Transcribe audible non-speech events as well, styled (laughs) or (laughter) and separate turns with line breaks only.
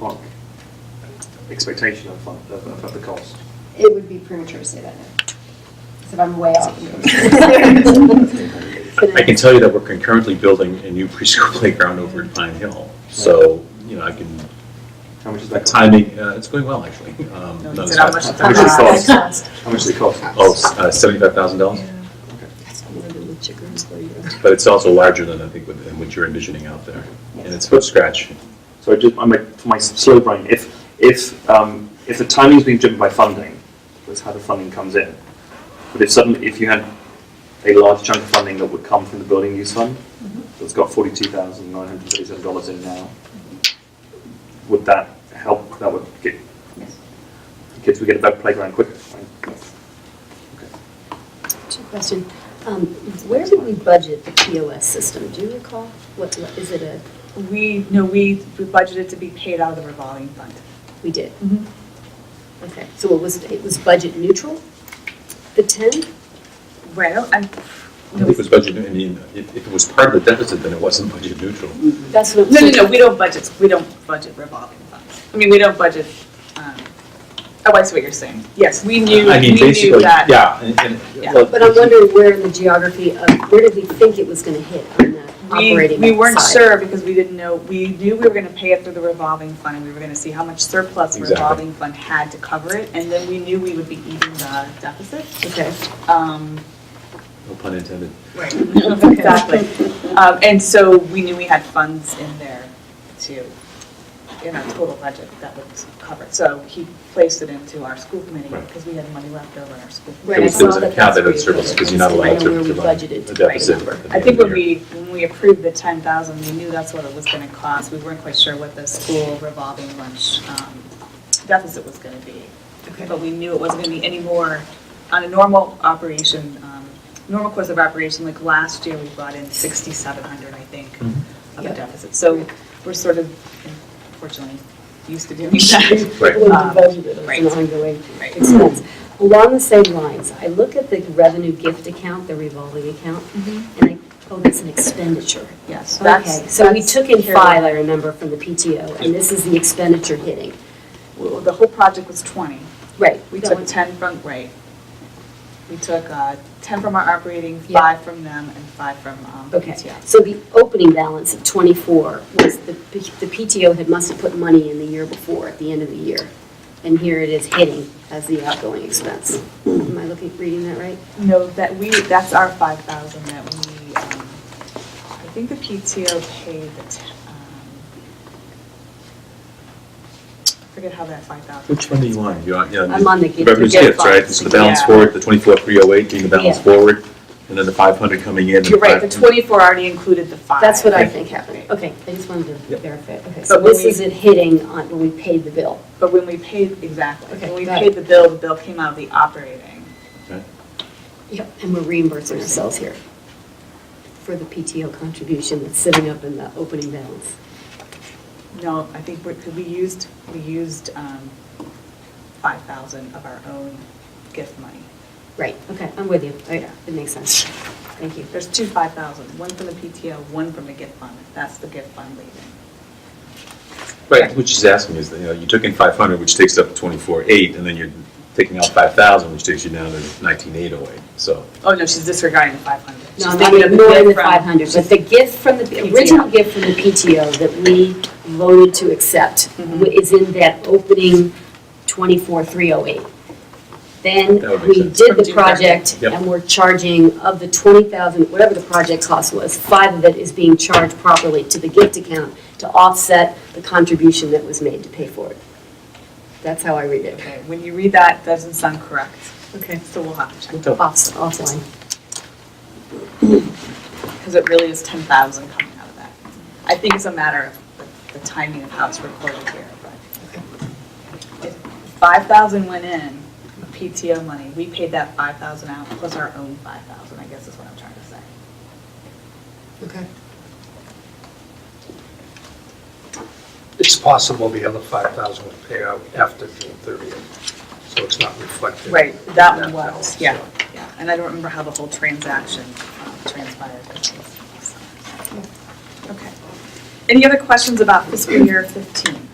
like expectation of, of, of- of the cost.
It would be premature to say that now. 'Cause if I'm way off.
I can tell you that we're concurrently building a new preschool (laughs) playground over at Pine Hill. So, you know, I can,
How much is that?
that
cost?
timing, uh, it's going well, actually. Um, no, it's not-
much-
how much it costs?
How much does it cost?
Oh, s- uh, $75,000?
(laughs) That's what I do with chickens for you.
But it's also larger than I think what- than what you're envisioning out there. And it's from scratch.
So just, I'm a, for my slow brain, if, if, um, if the timing's being driven by funding, that's how the funding comes in. But if suddenly, if you had a large chunk of funding that would come from the building use fund, that's got forty-two thousand nine hundred thirty-seven dollars in now, would that help, that would get, kids would get a better playground quicker, right?
Question, um, where did we budget the POS system? Do you recall? What, what- is it a,
We, no, we we budgeted to be paid out of the revolving fund.
we did?
Mm-hmm.
Okay, so it was, it was budget neutral, the 10?
Well, I'm,
I think it was budget, I mean, if if it was part of the deficit, then it wasn't budget neutral.
That's what.
no, no, no, we don't budget, we don't budget revolving funds. I mean, we don't budget, um, oh, I see what you're saying. Yes, we knew,
I
we
mean,
knew
basically,
that.
yeah. and- and-
Yeah.
well,
But I'm wondering where in the geography of, where did we think it was going to hit on the
We,
operating
we weren't
side?
sure because we didn't know, we knew we were going to pay it through the revolving fund and we were going to see how much surplus the
Exactly.
revolving fund had to cover it. And then we knew we would be eating the deficit.
Okay.
Um,
No pun intended.
Right, exactly. Um, And so we knew we had funds in there to, in our total budget that would cover it. So he placed it into our school committee
Right.
because we had money left over in our school.
Right,
There
I
was there was
saw
an
that
account
that's
that
where
had
you
surplus
put it.
because you're
I
not
don't
allowed
know where
to
we
provide
budgeted
a
the right
deficit.
number.
at the
I
end
think
of the
when
year.
we, when we approved the ten thousand, we knew that's what it was gonna cost. We weren't quite sure what the school revolving lunch um, deficit was gonna be. But we knew it wasn't gonna be any more on a normal operation, um, normal course of operation, like last year, we brought in sixty-seven hundred, I think,
Mhm.
of a
Yeah.
deficit. So we're sort of, unfortunately, used
(laughs)
to doing that.
Right.
When we
Um,
budgeted, it's
right.
an ongoing
Right.
expense. Along the same lines, I look at the revenue gift account, the revolving account, and I, oh, that's an expenditure.
Yes, that's.
Okay, so we
that's
took in
here.
five, I remember, from the PTO, and this is the expenditure hitting.
Well, The whole project was twenty.
Right.
We took 10 from, right. We took uh, 10 from our operating,
Yeah.
five from them, and five from um,
Okay,
PTS.
so the opening balance of 24 was, the P- the PTO had must have put money in the year before, at the end of the year. And here it is hitting as the outgoing expense. Am I looking, reading that right?
No, that we, that's our 5,000 that we, um, I think the PTO paid the, t- um, I forget how that 5,000.
Which one do you want? You want, yeah.
I'm on the gift-
Revenue's
gift
gifts, right?
fund.
So the balance
Yeah.
forward, the twenty-four, three oh eight being the balance
Yeah.
forward, and then the five hundred coming in. and
You're right, the
500
24 already included the five.
That's what I
Right.
think happened. Okay, I just wanted to
Yep.
verify. Okay,
But
so
when
this
we-
is it hitting on, when we paid the bill.
But when we paid, exactly,
Okay,
when we
got
paid the bill, the bill came out of the operating.
Okay.
Yep. And we're reimbursing ourselves here for the PTO contribution that's sitting up in the opening balance.
No, I think we're, 'cause we used, we used um, 5,000 of our own gift money.
Right, okay, I'm with you. All right, It makes sense. Thank you.
There's two 5,000, one from the PTO, one from the gift fund. That's the gift fund leaving.
Right, what she's asking is, that, you know, you took in five hundred, which takes up twenty-four, eight, and then you're taking out five thousand, which takes you down to nineteen, eight oh eight, so.
Oh, no, she's disregarding the 500. She's
No, I'm
thinking of the
ignoring
gift
the
from-
500, but the gift from the, the original
PTO.
gift from the PTO that we voted to accept
Mhm.
is in that opening 24308. Then
That would make
we
sense.
did
From
the
June 30th.
project
Yep.
and we're charging of the 20,000, whatever the project cost was, five of it is being charged properly to the gift account to offset the contribution that was made to pay for it. That's how I read it.
Okay, When you read that, doesn't sound correct,
Okay.
so we'll have to check.
Off- Offline.
Because it really is 10,000 coming out of that. I think it's a matter of the- the timing of how it's recorded here, but. if 5,000 went in, PTO money, we paid that 5,000 out plus our own 5,000, I guess is what I'm trying to say.
Okay.
It's possible the other 5,000 will pay out after June 30th, so it's not reflected.
Right, that
in
one was,
balance,
yeah,
so.
yeah. And I don't remember how the whole transaction um, transpired. Okay. Any other questions about fiscal year 15?